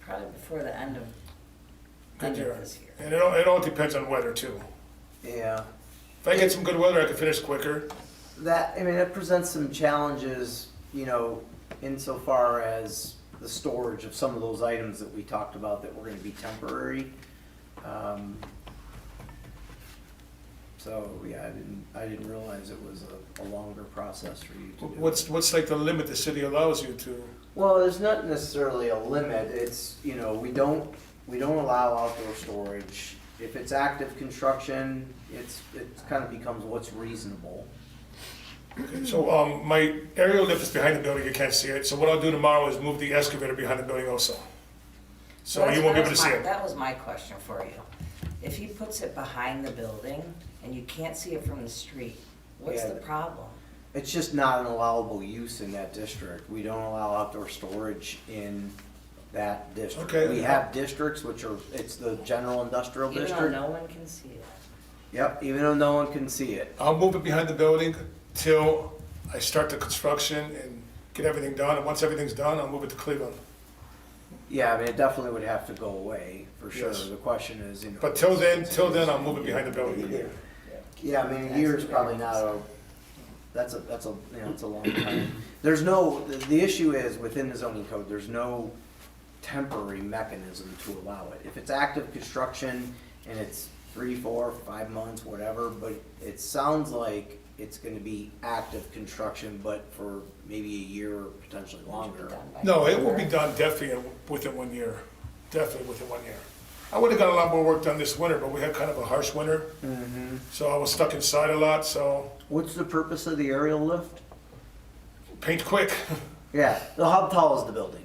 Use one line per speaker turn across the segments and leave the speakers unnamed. probably before the end of, end of this year.
And it all, it all depends on weather too.
Yeah,
If I get some good weather, I can finish quicker.
that, I mean, it presents some challenges, you know, insofar as the storage of some of those items that we talked about that were gonna be temporary. Um, So, yeah, I didn't, I didn't realize it was a, a longer process for you to do.
What's, what's like the limit the city allows you to?
Well, there's not necessarily a limit, it's, you know, we don't, we don't allow outdoor storage. If it's active construction, it's, it kind of becomes what's reasonable.
Okay, So, um, my aerial lift is behind the building, you can't see it, so what I'll do tomorrow is move the excavator behind the building also. So
That's-
you won't be
that
able
was
to see
my-
it.
That was my question for you. If he puts it behind the building and you can't see it from the street, what's
Yeah.
the problem?
It's just not an allowable use in that district. We don't allow outdoor storage in that district.
Okay.
We have districts which are, it's the general industrial
Even though
district.
no one can see it.
Yep, even though no one can see it.
I'll move it behind the building till I start the construction and get everything done, and once everything's done, I'll move it to Cleveland.
Yeah, I mean, it definitely would have to go away, for sure.
Yes.
The question is, you know.
But till then, till then, I'll move it behind the building.
Yeah, I mean, a year is probably not a, that's a, that's a, you know, it's a long time. There's no, the, the issue is, within the zoning code, there's no temporary mechanism to allow it. If it's active construction and it's three, four, five months, whatever, but it sounds like it's gonna be active construction, but for maybe a year or potentially longer.
No, it will be done definitely within one year, definitely within one year. I would've got a lot more work done this winter, but we had kind of a harsh winter, so I was stuck inside a lot, so
What's the purpose of the aerial lift?
paint quick.
Yeah, the how tall is the building?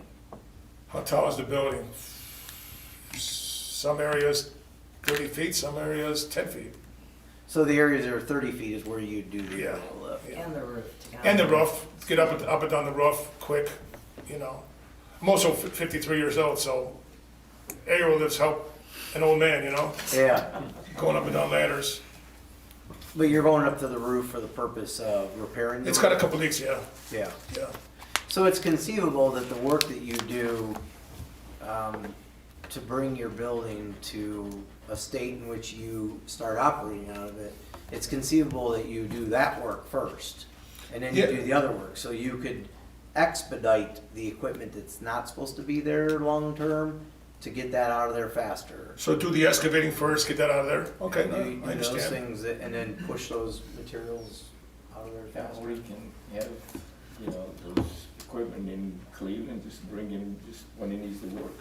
How tall is the building? Some areas thirty feet, some areas ten feet.
So the areas that are thirty feet is where you do the
Yeah.
aerial lift.
And the roof. to
And the
cover.
roof, get up and, up and down the roof quick, you know. I'm also fi- fifty-three years old, so aerial lifts help an old man, you know,
Yeah.
going up and down ladders.
But you're going up to the roof for the purpose of repairing the
It's got a
roof?
couple leaks, yeah,
Yeah.
yeah.
So it's conceivable that the work that you do um, to bring your building to a state in which you start operating out of it, it's conceivable that you do that work first and then you
Yeah.
do the other work. So you could expedite the equipment that's not supposed to be there long-term to get that out of there faster.
So do the excavating first, get that out of there. Okay,
And you-
no, I
you do those
understand.
things that- and then push those materials out of there
Yeah,
faster.
or you can have, you know, those equipment in Cleveland, just bring in just when it needs to work.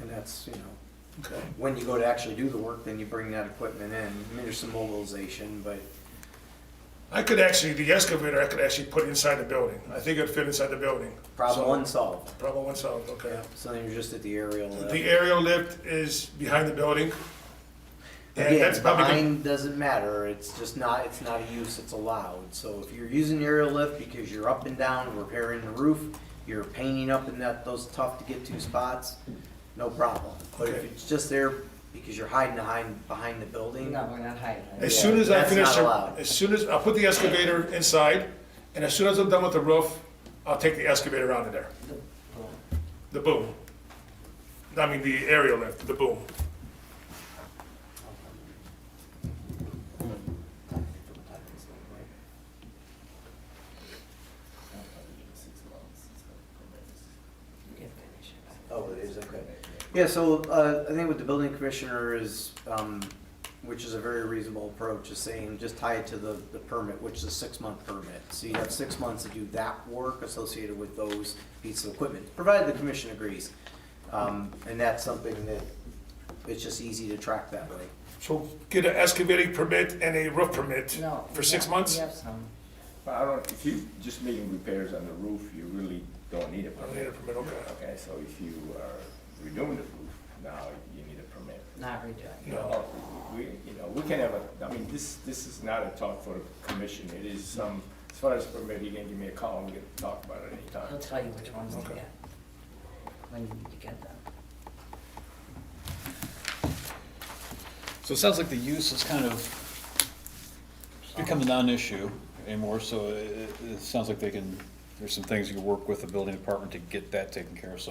And that's, you know,
Okay.
when you go to actually do the work, then you bring that equipment in. I mean, there's some mobilization, but
I could actually, the excavator, I could actually put inside the building. I think it'd fit inside the building. So-
problem unsolved.
Problem one solved, okay.
Yeah, so then you're just at the aerial. uh,
The aerial lift is behind the building. And that's
Again,
probably, gonna-
behind doesn't matter. It's just not, it's not a use, it's allowed. So if you're using the aerial lift because you're up and down, repairing the roof, you're painting up in that, those tough to get to spots, no problem. But if
Okay.
it's just there because you're hiding behind, behind the building,
No, we're not hiding it.
as
yeah,
soon as I
that's
finish,
not
the-
allowed.
as soon as, I'll put the excavator inside, and as soon as I'm done with the roof, I'll take the excavator out of there,
The boom.
the boom. I mean, the aerial lift, the boom.
You can finish it.
Oh, it is, okay. Yeah, so uh, I think what the building commissioner is, um, which is a very reasonable approach, is saying just tie it to the, the permit, which is a six-month permit. So you have six months to do that work associated with those pieces of equipment, provided the commission agrees. Um, And that's something that, it's just easy to track that way.
So get an excavating permit and a roof permit
No.
for
we
six
have-
months?
We have some.
But I don't, if you just making repairs on the roof, you really don't need a
I don't need a
permit.
permit, okay.
Okay, so if you are redoing the roof, now you need a permit.
Not redoing.
You know, we, you know, we can have a, I mean, this, this is not a talk for the commission, it is some, as far as permit, you can give me a call, and we can talk about it
He'll
anytime.
tell you which ones to
Okay.
get. When you get them.
So it sounds like the use is kind of become a non-issue anymore, so it, it- it sounds like they can, there's some things you can work with the building department to get that taken care of, so